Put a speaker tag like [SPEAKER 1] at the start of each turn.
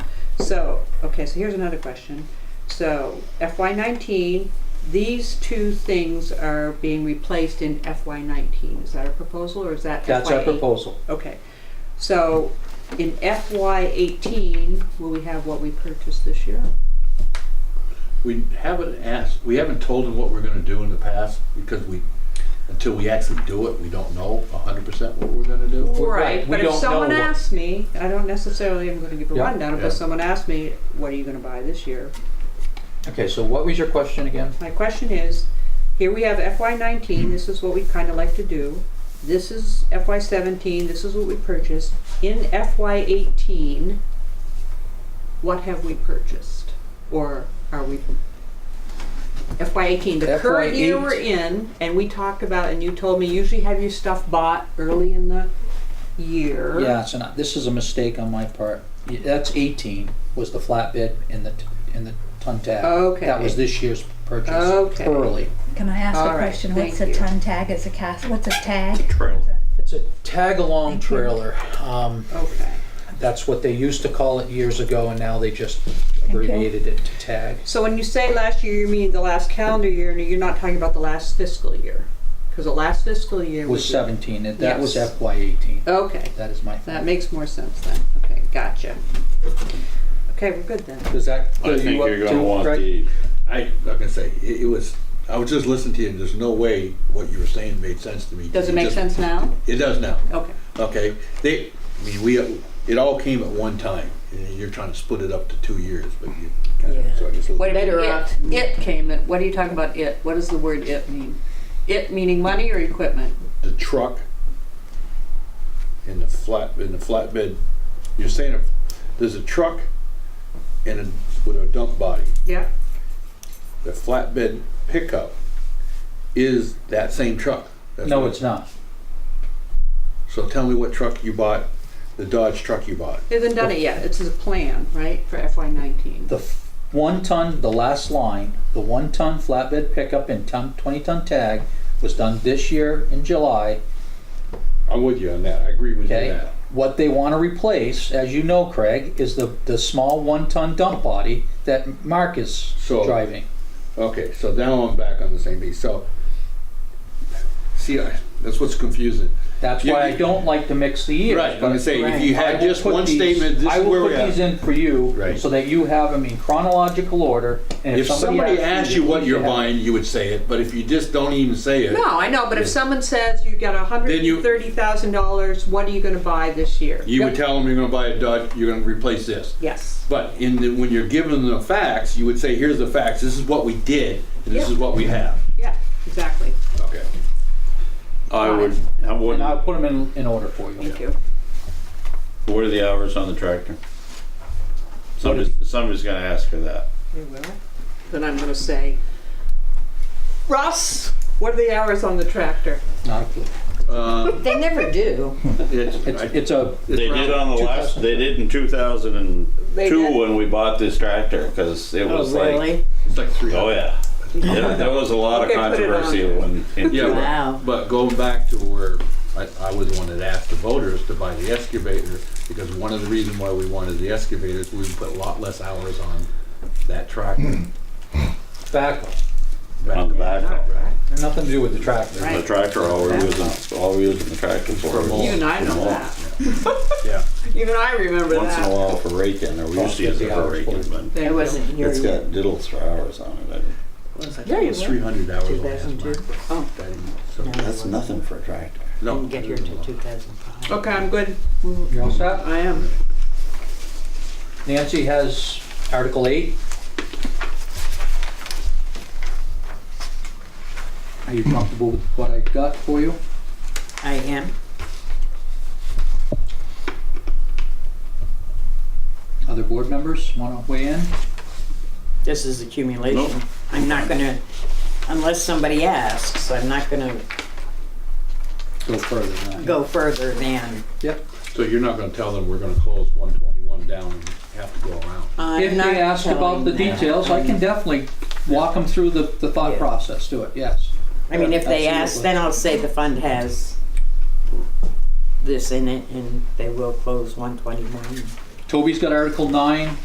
[SPEAKER 1] So, okay, so here's another question. So FY nineteen, these two things are being replaced in FY nineteen. Is that a proposal or is that FY eight?
[SPEAKER 2] That's our proposal.
[SPEAKER 1] Okay, so in FY eighteen, will we have what we purchased this year?
[SPEAKER 3] We haven't asked, we haven't told them what we're gonna do in the past, because we, until we actually do it, we don't know hundred percent what we're gonna do.
[SPEAKER 2] Right, we
[SPEAKER 1] But if
[SPEAKER 2] don't know
[SPEAKER 1] someone
[SPEAKER 2] what-
[SPEAKER 1] asks me, I don't necessarily am gonna give a
[SPEAKER 2] Yeah,
[SPEAKER 1] rundown,
[SPEAKER 3] yeah.
[SPEAKER 1] but someone asks me, what are you gonna buy this year?
[SPEAKER 2] Okay, so what was your question again?
[SPEAKER 1] My question is, here we have FY nineteen, this is what we kinda like to do. This is FY seventeen, this is what we purchased. In FY eighteen, what have we purchased? Or are we? FY eighteen, the current year we're in, and we talked about, and you told me usually have your stuff bought early in the year.
[SPEAKER 2] Yeah, so now, this is a mistake on my part. Y- That's eighteen was the flatbed and the, t- and the ton tag.
[SPEAKER 1] Okay.
[SPEAKER 2] That was this year's purchase.
[SPEAKER 1] Okay.
[SPEAKER 2] Early.
[SPEAKER 4] Can I ask
[SPEAKER 1] All
[SPEAKER 4] a
[SPEAKER 1] right,
[SPEAKER 4] question? What's
[SPEAKER 1] thank
[SPEAKER 4] a
[SPEAKER 1] you.
[SPEAKER 4] ton tag? It's a cast, what's a tag?
[SPEAKER 3] Trailer.
[SPEAKER 2] It's a tag-along trailer. Um,
[SPEAKER 1] Okay,
[SPEAKER 2] that's what they used to call it years ago and now they just abbreviated it to tag.
[SPEAKER 1] so when you say last year, you mean the last calendar year, and you're not talking about the last fiscal year? Cause the last fiscal year
[SPEAKER 2] It
[SPEAKER 1] was.
[SPEAKER 2] was seventeen, and that was
[SPEAKER 1] Yes.
[SPEAKER 2] FY eighteen.
[SPEAKER 1] Okay,
[SPEAKER 2] That is my.
[SPEAKER 1] that makes more sense then. Okay, gotcha. Okay, we're good then.
[SPEAKER 2] Does that
[SPEAKER 5] I
[SPEAKER 2] clear
[SPEAKER 5] think
[SPEAKER 2] you up
[SPEAKER 5] you're gonna
[SPEAKER 2] too,
[SPEAKER 5] want
[SPEAKER 2] Craig?
[SPEAKER 5] the,
[SPEAKER 3] I, like I say, it, it was, I was just listening to you, and there's no way what you were saying made sense to me.
[SPEAKER 1] Does it make
[SPEAKER 3] just-
[SPEAKER 1] sense now?
[SPEAKER 3] It does now,
[SPEAKER 1] Okay,
[SPEAKER 3] okay? They, I mean, we, it all came at one time, and you're trying to split it up to two years, but you kind of, so I just.
[SPEAKER 1] what
[SPEAKER 3] It
[SPEAKER 1] better
[SPEAKER 6] It-
[SPEAKER 1] off? It uh, came, in- what are you talking about it? What does the word it mean? It meaning money or equipment?
[SPEAKER 3] the truck and the flat, and the flatbed, you're saying if there's a truck and a, with a dump body,
[SPEAKER 1] Yeah.
[SPEAKER 3] the flatbed pickup is that same truck. That's
[SPEAKER 2] No,
[SPEAKER 3] what-
[SPEAKER 2] it's not.
[SPEAKER 3] So tell me what truck you bought, the Dodge truck you bought.
[SPEAKER 1] They haven't done it yet. It's a plan, right, for FY nineteen?
[SPEAKER 2] The f- one ton, the last line, the one ton flatbed pickup and ton, twenty ton tag was done this year in July.
[SPEAKER 3] I'm with you on that, I agree with you on
[SPEAKER 2] Okay,
[SPEAKER 3] that.
[SPEAKER 2] what they wanna replace, as you know, Craig, is the, the small one ton dump body that Mark is
[SPEAKER 3] So-
[SPEAKER 2] driving.
[SPEAKER 3] Okay, so now I'm back on the same page, so. See, I- that's what's confusing.
[SPEAKER 2] That's
[SPEAKER 3] You-
[SPEAKER 2] why I don't like to mix the years.
[SPEAKER 3] Right, I'm gonna
[SPEAKER 2] but-
[SPEAKER 3] say, if you
[SPEAKER 1] Right.
[SPEAKER 2] I
[SPEAKER 3] had
[SPEAKER 2] will
[SPEAKER 3] just
[SPEAKER 2] put
[SPEAKER 3] one
[SPEAKER 2] these-
[SPEAKER 3] statement, this
[SPEAKER 2] I
[SPEAKER 3] is
[SPEAKER 2] will
[SPEAKER 3] where
[SPEAKER 2] put
[SPEAKER 3] we're at.
[SPEAKER 2] these in for you,
[SPEAKER 3] Right.
[SPEAKER 2] so that you have them in chronological order. and
[SPEAKER 3] If somebody asked you what
[SPEAKER 2] please
[SPEAKER 3] you're
[SPEAKER 2] have-
[SPEAKER 3] buying, you would say it, but if you just don't even say it.
[SPEAKER 1] No, I know, but if someone says you got a hundred
[SPEAKER 3] Then you-
[SPEAKER 1] and thirty thousand dollars, what are you gonna buy this year?
[SPEAKER 3] You would tell them you're gonna buy a Dodge, you're gonna replace this.
[SPEAKER 1] Yes.
[SPEAKER 3] But in the, when you're given the facts, you would say, here's the facts, this is what we did, and this
[SPEAKER 1] Yeah.
[SPEAKER 3] is what we have.
[SPEAKER 1] Yeah, exactly.
[SPEAKER 3] Okay.
[SPEAKER 5] I would, I would,
[SPEAKER 2] And I'll put them in, in order for you.
[SPEAKER 1] Thank you.
[SPEAKER 5] what are the hours on the tractor? Somebody's, somebody's gonna ask her that.
[SPEAKER 1] They will. Then I'm gonna say, Russ, what are the hours on the tractor?
[SPEAKER 2] Not a clue.
[SPEAKER 3] Um,
[SPEAKER 6] They never do.
[SPEAKER 3] it's,
[SPEAKER 2] It's,
[SPEAKER 3] I-
[SPEAKER 2] it's a,
[SPEAKER 5] They did on the last, they did in two thousand and
[SPEAKER 1] They
[SPEAKER 5] two
[SPEAKER 1] did? Oh,
[SPEAKER 5] when we bought this tractor, cause it was like,
[SPEAKER 6] Really?
[SPEAKER 3] it's like three.
[SPEAKER 5] oh yeah. There there was a lot of
[SPEAKER 1] Okay, put it on
[SPEAKER 5] controversy
[SPEAKER 1] there.
[SPEAKER 5] when, in
[SPEAKER 3] Yeah,
[SPEAKER 5] two-
[SPEAKER 6] Wow.
[SPEAKER 3] but- but going back to where I, I was the one that asked the voters to buy the excavator, because one of the reasons why we wanted the excavator is we put a lot less hours on that tractor.
[SPEAKER 2] back,
[SPEAKER 5] on the back.
[SPEAKER 1] Right.
[SPEAKER 2] nothing to do with the tractor.
[SPEAKER 5] The tractor, all we're using, all we're using the tractor for. is-
[SPEAKER 1] You and I know that.
[SPEAKER 3] Yeah.
[SPEAKER 1] Even I remember
[SPEAKER 5] Once in a
[SPEAKER 1] that.
[SPEAKER 5] while for raking, or we used to use it for raking, but
[SPEAKER 1] There you
[SPEAKER 6] It
[SPEAKER 1] go.
[SPEAKER 6] wasn't here
[SPEAKER 5] it's
[SPEAKER 6] yet.
[SPEAKER 5] got diddles for hours on it. I mean,
[SPEAKER 6] Yeah,
[SPEAKER 3] It
[SPEAKER 6] you
[SPEAKER 3] was
[SPEAKER 6] were.
[SPEAKER 3] three hundred hours on that.
[SPEAKER 6] 2002.
[SPEAKER 1] Oh.
[SPEAKER 3] I didn't- so-
[SPEAKER 5] That's nothing for a tractor.
[SPEAKER 3] No.
[SPEAKER 6] Didn't get here until 2005.
[SPEAKER 1] Oh, Okay, I'm good.
[SPEAKER 2] You all set?
[SPEAKER 1] I am.
[SPEAKER 2] Nancy has Article 8. Are you comfortable with what I got for you?
[SPEAKER 6] I am.
[SPEAKER 2] Other board members want to weigh in?
[SPEAKER 6] This is accumulation.
[SPEAKER 5] Nope.
[SPEAKER 6] I'm not gonna, unless somebody asks, I'm not gonna
[SPEAKER 2] Go further than that.
[SPEAKER 6] go further than,
[SPEAKER 2] Yep.
[SPEAKER 3] So you're not gonna tell them we're gonna close one twenty-one down and have to go around?
[SPEAKER 6] I'm
[SPEAKER 2] If
[SPEAKER 6] not
[SPEAKER 2] they ask about
[SPEAKER 6] telling
[SPEAKER 2] the
[SPEAKER 6] them.
[SPEAKER 2] details, I can definitely walk them through the, the thought
[SPEAKER 6] Yeah.
[SPEAKER 2] process to it, yes.
[SPEAKER 6] I mean, if they ask,
[SPEAKER 2] Absolutely.
[SPEAKER 6] then I'll say the fund has this in it and they will close 121.
[SPEAKER 2] Toby's got Article 9.